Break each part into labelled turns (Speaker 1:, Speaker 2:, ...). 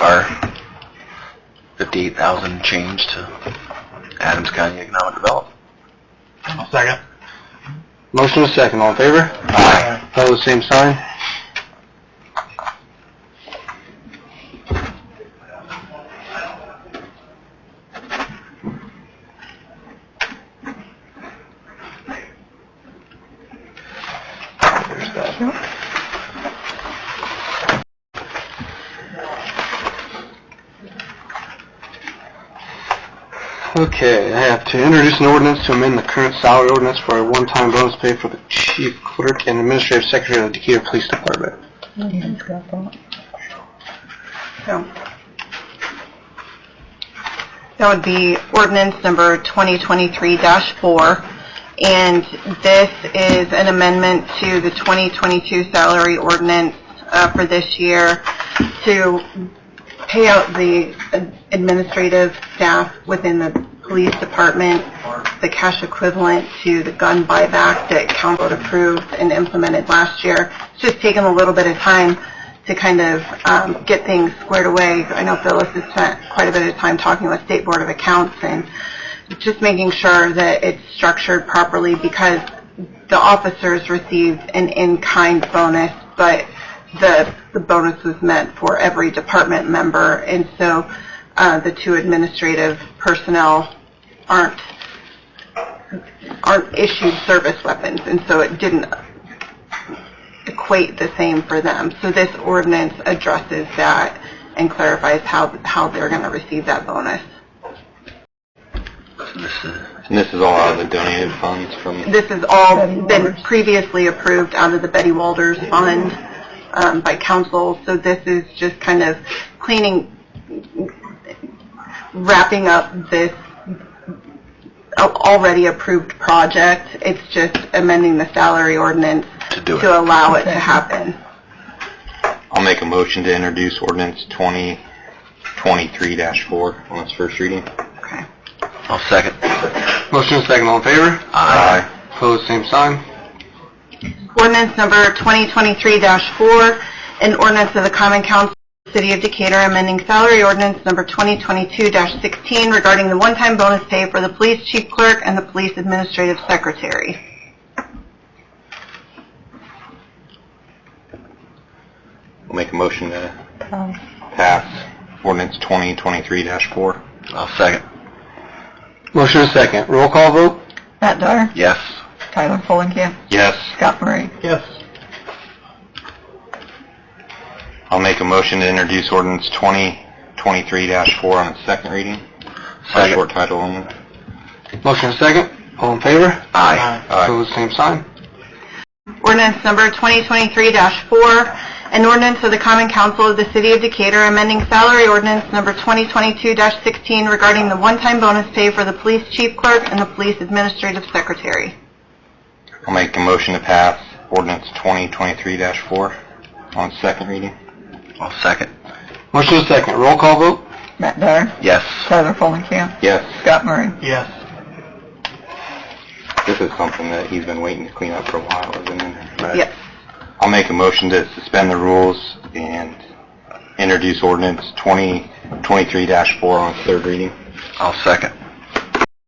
Speaker 1: our fifty-eight thousand change to Adams County Economic Development.
Speaker 2: Second.
Speaker 3: Motion is second, all in favor?
Speaker 1: Aye.
Speaker 3: Pose same sign. There's that. Okay, I have to introduce an ordinance to amend the current salary ordinance for a one-time bonus pay for the chief clerk and administrative secretary of the Decatur Police Department.
Speaker 4: Nobody's got that.
Speaker 5: So That would be ordinance number 2023-4, and this is an amendment to the 2022 salary ordinance uh, for this year to pay out the administrative staff within the police department the cash equivalent to the gun buyback that council approved and implemented last year. It's just taken a little bit of time to kind of um, get things squared away. I know Phyllis has spent quite a bit of time talking with State Board of Accounts and just making sure that it's structured properly because the officers received an in-kind bonus, but the, the bonus was meant for every department member. And so uh, the two administrative personnel aren't aren't issued service weapons, and so it didn't equate the same for them. So this ordinance addresses that and clarifies how, how they're going to receive that bonus.
Speaker 1: This is,
Speaker 3: And this is all out of the donated funds from...
Speaker 5: This has all
Speaker 4: Betty
Speaker 5: been
Speaker 4: Walters.
Speaker 5: previously approved out of the Betty Walters Fund um, by council, so this is just kind of cleaning, wrapping up this al- already approved project. It's just amending the salary ordinance
Speaker 1: to do
Speaker 5: to
Speaker 1: it.
Speaker 5: allow it to happen.
Speaker 3: I'll make a motion to introduce ordinance 2023-4 on its first reading.
Speaker 5: Okay.
Speaker 1: I'll second.
Speaker 3: Motion second, all in favor?
Speaker 1: Aye.
Speaker 3: Pose same sign.
Speaker 5: Ordinance number 2023-4, an ordinance of the Common Council of the City of Decatur amending salary ordinance number 2022-16 regarding the one-time bonus pay for the police chief clerk and the police administrative secretary.
Speaker 3: I'll make a motion to
Speaker 4: Um,
Speaker 3: pass ordinance 2023-4.
Speaker 1: I'll second.
Speaker 3: Motion is second. Roll call vote?
Speaker 4: Matt Dyer,
Speaker 1: Yes.
Speaker 4: Tyler Fulenkamp,
Speaker 3: Yes.
Speaker 4: Scott Murray.
Speaker 2: Yes.
Speaker 3: I'll make a motion to introduce ordinance 2023-4 on its second reading. By
Speaker 1: Second.
Speaker 3: short title only. Motion second. All in favor?
Speaker 1: Aye.
Speaker 3: Pose same sign.
Speaker 5: Ordinance number 2023-4, an ordinance of the Common Council of the City of Decatur amending salary ordinance number 2022-16 regarding the one-time bonus pay for the police chief clerk and the police administrative secretary.
Speaker 3: I'll make a motion to pass ordinance 2023-4 on its second reading.
Speaker 1: I'll second.
Speaker 3: Motion second. Roll call vote?
Speaker 4: Matt Dyer,
Speaker 1: Yes.
Speaker 4: Tyler Fulenkamp,
Speaker 3: Yes.
Speaker 4: Scott Murray.
Speaker 2: Yes.
Speaker 3: This is something that he's been waiting to clean up for a while, isn't it?
Speaker 5: Yes.
Speaker 3: I'll make a motion to suspend the rules and introduce ordinance 2023-4 on its third reading.
Speaker 1: I'll second.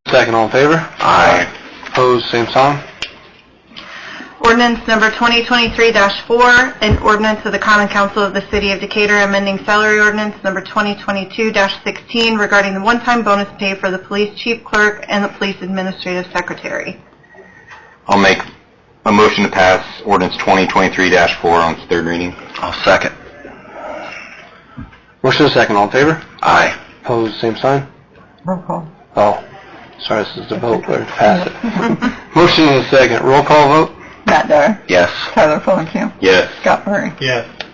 Speaker 3: Second, all in favor?
Speaker 1: Aye.
Speaker 3: Opposed, same sign?
Speaker 5: Ordinance number 2023-4, an ordinance of the Common Council of the City of Decatur amending salary ordinance number 2022-16 regarding the one-time bonus pay for the police chief clerk and the police administrative secretary.
Speaker 3: I'll make a motion to pass ordinance 2023-4 on its third reading.
Speaker 1: I'll second.
Speaker 3: Motion second, all in favor?
Speaker 1: Aye.
Speaker 3: Opposed, same sign?
Speaker 4: Roll call.
Speaker 3: Oh, sorry, this is the vote, we're to pass it. Motion is second, roll call vote?
Speaker 4: Matt Dyer,
Speaker 1: Yes.
Speaker 4: Tyler Fulenkamp,
Speaker 3: Yes.
Speaker 4: Scott Murray.
Speaker 2: Yes.